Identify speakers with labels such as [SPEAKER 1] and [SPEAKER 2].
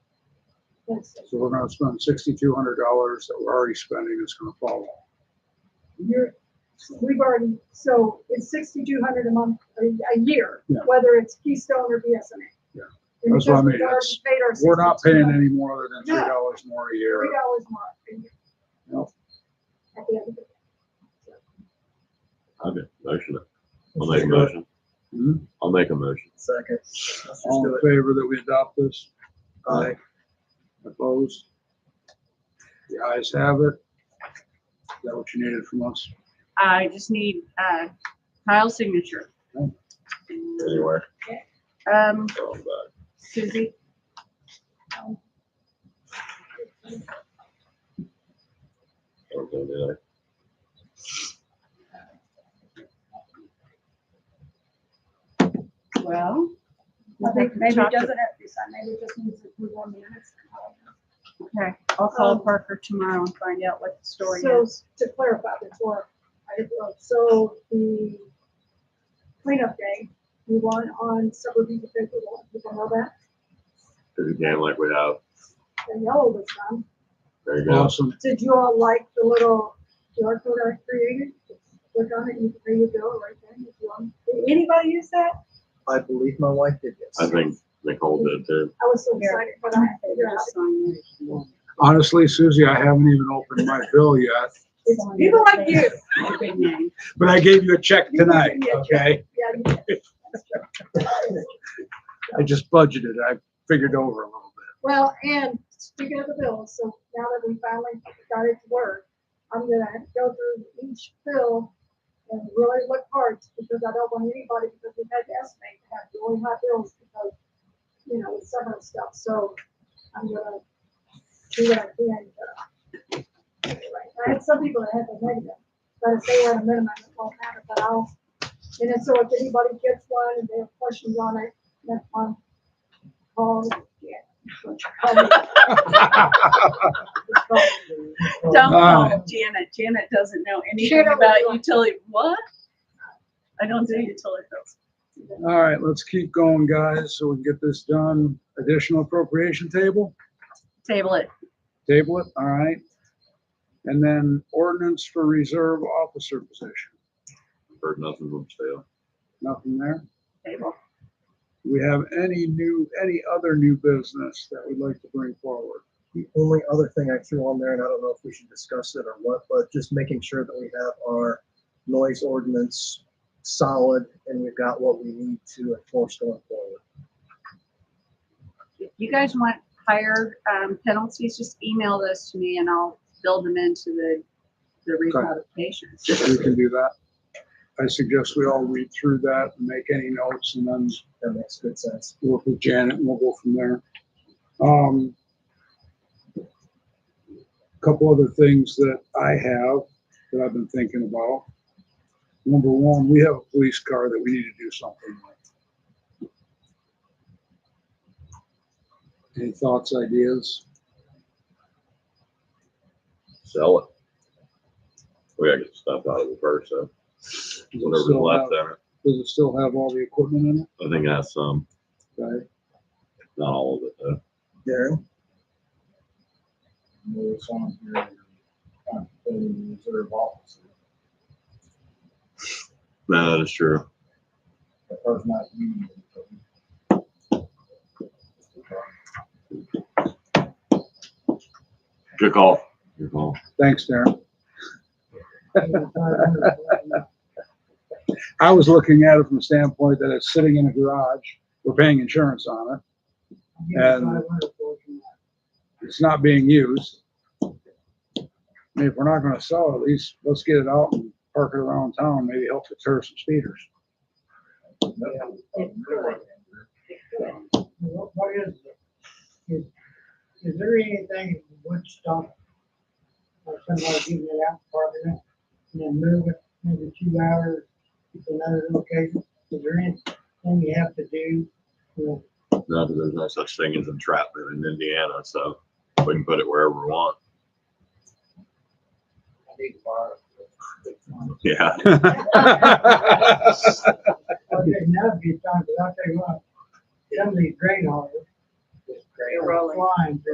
[SPEAKER 1] So we're gonna spend sixty-two hundred dollars that we're already spending, it's gonna fall off.
[SPEAKER 2] You're, we've already, so it's sixty-two hundred a month, a, a year,
[SPEAKER 1] Yeah.
[SPEAKER 2] whether it's Keystone or BSNA.
[SPEAKER 1] Yeah.
[SPEAKER 2] And
[SPEAKER 1] That's what
[SPEAKER 2] because
[SPEAKER 1] I mean,
[SPEAKER 2] we've already
[SPEAKER 1] it's-
[SPEAKER 2] paid our
[SPEAKER 1] We're not paying
[SPEAKER 2] $62,
[SPEAKER 1] any more than three dollars more a
[SPEAKER 2] Three
[SPEAKER 1] year.
[SPEAKER 2] dollars more a year.
[SPEAKER 1] Nope.
[SPEAKER 2] At the end of the
[SPEAKER 3] Okay, motion. I'll make a motion.
[SPEAKER 1] Hmm?
[SPEAKER 3] I'll make a motion.
[SPEAKER 4] Second. Let's just
[SPEAKER 1] All
[SPEAKER 4] do
[SPEAKER 1] in
[SPEAKER 4] it.
[SPEAKER 1] favor that we adopt this?
[SPEAKER 4] Aye.
[SPEAKER 1] Opposed? The ayes have it. Is that what you needed from us?
[SPEAKER 5] I just need uh, Kyle's signature.
[SPEAKER 1] Okay.
[SPEAKER 3] Anywhere.
[SPEAKER 5] Um,
[SPEAKER 3] I'll back.
[SPEAKER 5] Suzie,
[SPEAKER 2] um,
[SPEAKER 3] I'll go down.
[SPEAKER 5] well,
[SPEAKER 2] I think maybe it
[SPEAKER 5] Chocolate.
[SPEAKER 2] doesn't have to be signed, maybe it just needs to move on minutes.
[SPEAKER 5] okay, I'll call
[SPEAKER 2] Um,
[SPEAKER 5] Parker tomorrow and find out what the story
[SPEAKER 2] So,
[SPEAKER 5] is.
[SPEAKER 2] to clarify before, I didn't know, so the cleanup day, you want on Silver Beach, if people want, people know that,
[SPEAKER 3] Cause again, like we have,
[SPEAKER 2] the yellow this time.
[SPEAKER 3] there you go.
[SPEAKER 1] Awesome.
[SPEAKER 2] Did you all like the little QR code I created? Click on it, you, there you go, right there, if you want. Did anybody use that?
[SPEAKER 4] I believe my wife did this.
[SPEAKER 3] I think Nicole did too.
[SPEAKER 2] I was so excited when I figured out.
[SPEAKER 5] Just sign it.
[SPEAKER 1] Honestly, Susie, I haven't even opened my bill yet,
[SPEAKER 2] It's people like you.
[SPEAKER 5] My big name.
[SPEAKER 1] but I gave you a check tonight, okay?
[SPEAKER 2] Yeah, you did.
[SPEAKER 1] I just budgeted, I figured over a little bit.
[SPEAKER 2] Well, and speaking of the bills, so now that we finally got it to work, I'm gonna go through each bill and really look hard because I don't want anybody, because we had to estimate, to have really high bills because, you know, with summer and stuff, so I'm gonna do what I can. but- I had some people that had the negative, but if they were at a minimum, it won't matter, but I'll, and then so if anybody gets one and they have questions on it, that's on, call, yeah. Um,
[SPEAKER 5] Don't
[SPEAKER 1] Wow.
[SPEAKER 5] call Janet. Janet doesn't know anything
[SPEAKER 2] Janet
[SPEAKER 5] about
[SPEAKER 2] will-
[SPEAKER 5] utility. What? I don't do utility bills.
[SPEAKER 1] All right, let's keep going, guys, so we can get this done. Additional appropriation table,
[SPEAKER 5] Table it.
[SPEAKER 1] table it, all right? And then ordinance for reserve officer position,
[SPEAKER 3] Heard nothing from Stale.
[SPEAKER 1] nothing there?
[SPEAKER 5] Table.
[SPEAKER 1] Do we have any new, any other new business that we'd like to bring forward?
[SPEAKER 4] The only other thing I threw on there, and I don't know if we should discuss it or what, but just making sure that we have our noise ordinance solid and we've got what we need to enforce going forward.
[SPEAKER 5] You guys want higher um, penalties? Just email those to me and I'll build them into the, the recodifications.
[SPEAKER 1] If we can do that. I suggest we all read through that and make any notes and then
[SPEAKER 4] That makes good sense.
[SPEAKER 1] work with Janet and we'll go from there. Um, couple other things that I have that I've been thinking about. Number one, we have a police car that we need to do something with. Any thoughts, ideas?
[SPEAKER 3] Sell it. We gotta get stuff out of it first, so
[SPEAKER 1] Does it
[SPEAKER 3] whatever's
[SPEAKER 1] still have,
[SPEAKER 3] left there.
[SPEAKER 1] does it still have all the equipment in
[SPEAKER 3] I think that's some,
[SPEAKER 1] it? Okay.
[SPEAKER 3] not all of it though.
[SPEAKER 4] Darren,
[SPEAKER 6] It's on here, contemplating reserve officer,
[SPEAKER 3] No, that is true.
[SPEAKER 6] the person not union.
[SPEAKER 3] Good call. Good call.
[SPEAKER 1] Thanks, Darren. I was looking at it from the standpoint that it's sitting in a garage, we're paying insurance on it, and it's not being used. I mean, If we're not gonna sell it, at least let's get it out and park it around town, maybe help deter some speeders.
[SPEAKER 7] What what is, the- is, is there anything in wood stock? Or somebody giving it out, parking it, and then move it, maybe two hours, to another location? Is there anything you have to do? You know,
[SPEAKER 3] Not that there's no such thing as entrapment in Indiana, so we can put it wherever we want.
[SPEAKER 6] I need to borrow.
[SPEAKER 3] Yeah.
[SPEAKER 7] Well, there's another few times, but I'll tell you what, some of these grain haulers.
[SPEAKER 5] You're rolling.
[SPEAKER 7] Flying,